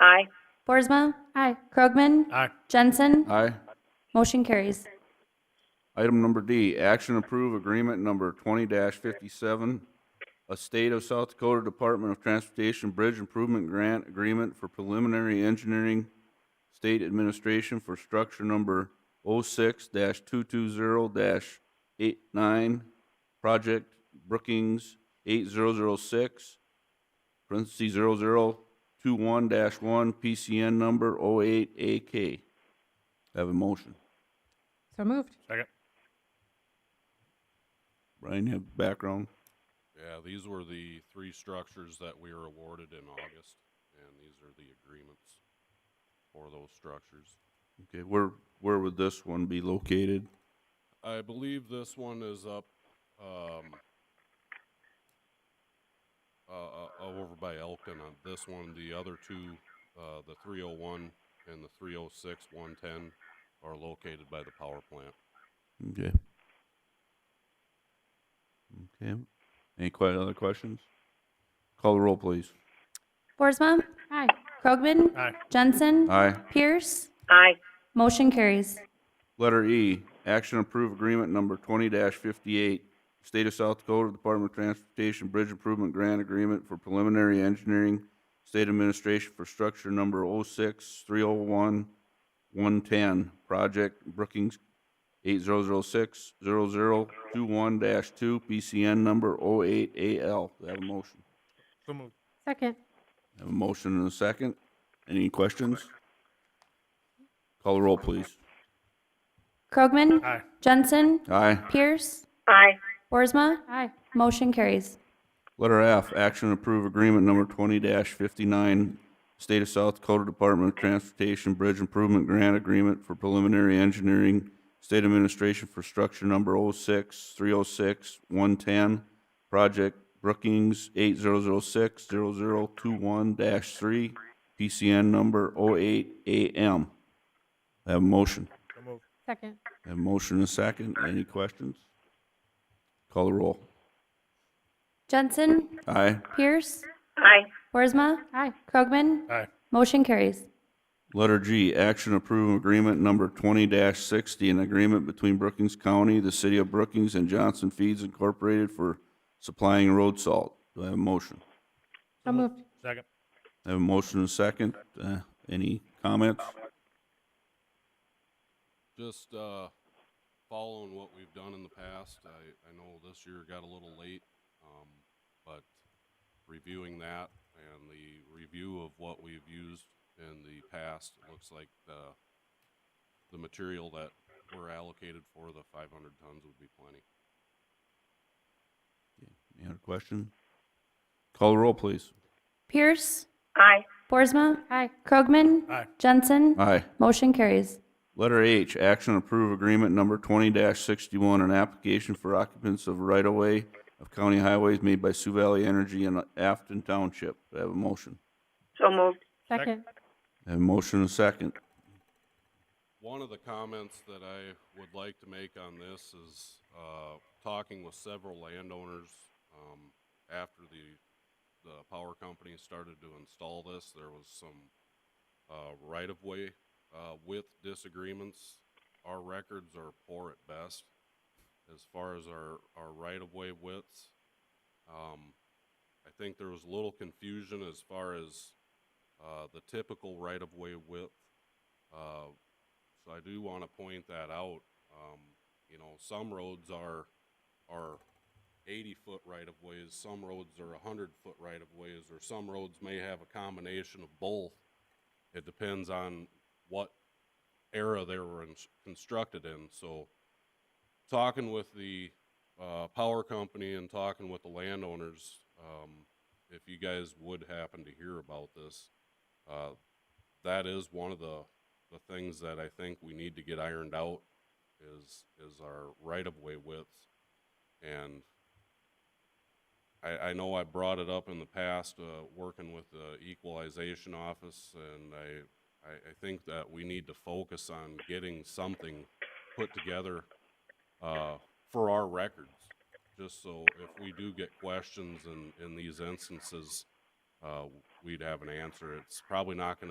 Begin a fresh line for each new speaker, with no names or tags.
Aye.
Boersma? Aye. Krogman?
Aye.
Jensen?
Aye.
Motion carries.
Item number D, action approve agreement number twenty fifty-seven, a state of South Dakota Department of Transportation Bridge Improvement Grant Agreement for Preliminary Engineering State Administration for Structure Number oh 6 two-two-zero eight-nine, Project Brookings eight-zero-zero-six, parentheses zero-zero-two-one one, PCN number 08AK. Have a motion.
So moved.
Second.
Brian, you have background?
Yeah, these were the three structures that we were awarded in August, and these are the agreements for those structures.
Okay, where, where would this one be located?
I believe this one is up, um, uh, uh, over by Elkton on this one. The other two, uh, the 301 and the 306 110 are located by the power plant.
Okay. Okay, any que- other questions? Call the roll, please.
Boersma? Aye. Krogman?
Aye.
Jensen?
Aye.
Pierce?
Aye.
Motion carries.
Letter E, action approve agreement number twenty fifty-eight, State of South Dakota Department of Transportation Bridge Improvement Grant Agreement for Preliminary Engineering, State Administration for Structure Number 06 110 Project Brookings eight zero zero six zero zero two one dash two, PCN number 08AL. Do I have a motion?
So moved.
Second.
I Have a motion and a second. Any questions? Call the roll, please.
Krogman?
Aye.
Jensen?
Aye.
Pierce?
Aye.
Boersma?
Aye.
Motion carries.
Letter F, action to approve agreement number twenty fifty-nine, State of South Dakota Department of Transportation Bridge Improvement Grant Agreement for Preliminary Engineering, State Administration for Structure Number 06 110 Project Brookings eight zero zero six zero zero two one three, PCN number 08AM. Have a motion.
So moved.
Second.
Have a motion and a second. Any questions? Call the roll.
Jensen?
Aye.
Pierce?
Aye.
Boersma?
Aye.
Krogman?
Aye.
Motion carries.
Letter G, action approve agreement number twenty sixty, an agreement between Brookings County, the city of Brookings, and Johnson Feeds Incorporated for supplying road salt. Do I have a motion?
So moved.
Second.
I have a motion and a second. Uh, any comments?
Just uh, following what we've done in the past. I, I know this year got a little late, um, but reviewing that and the review of what we've used in the past, it looks like the, the material that we're allocated for the 500 tons would be plenty.
Any other question? Call the roll, please.
Pierce?
Aye.
Boersma?
Aye.
Krogman?
Aye.
Jensen?
Aye.
Motion carries.
Letter H, action approve agreement number twenty sixty-one, an application for occupants of right-of-way of county highways made by Sioux Valley Energy and Afton Township. Do I have a motion?
So moved.
Second.
I have a motion and a second.
One of the comments that I would like to make on this is uh, talking with several landowners um, after the the power company started to install this, there was some uh, right of way uh, width disagreements. Our records are poor at best as far as our, our right of way widths. Um, I think there was little confusion as far as uh, the typical right of way width. Uh, so I do want to point that out. Um, you know, some roads are are 80 foot right of ways, some roads are 100 foot right of ways, or some roads may have a combination of both. It depends on what era they were ins- constructed in. So, talking with the uh, power company and talking with the landowners, um, if you guys would happen to hear about this, uh, that is one of the the things that I think we need to get ironed out is is our right of way widths. And I, I know I brought it up in the past, uh, working with the equalization office, and I, I, I think that we need to focus on getting something put together uh, for our records, just so if we do get questions in, in these instances, uh, we'd have an answer. It's probably not going to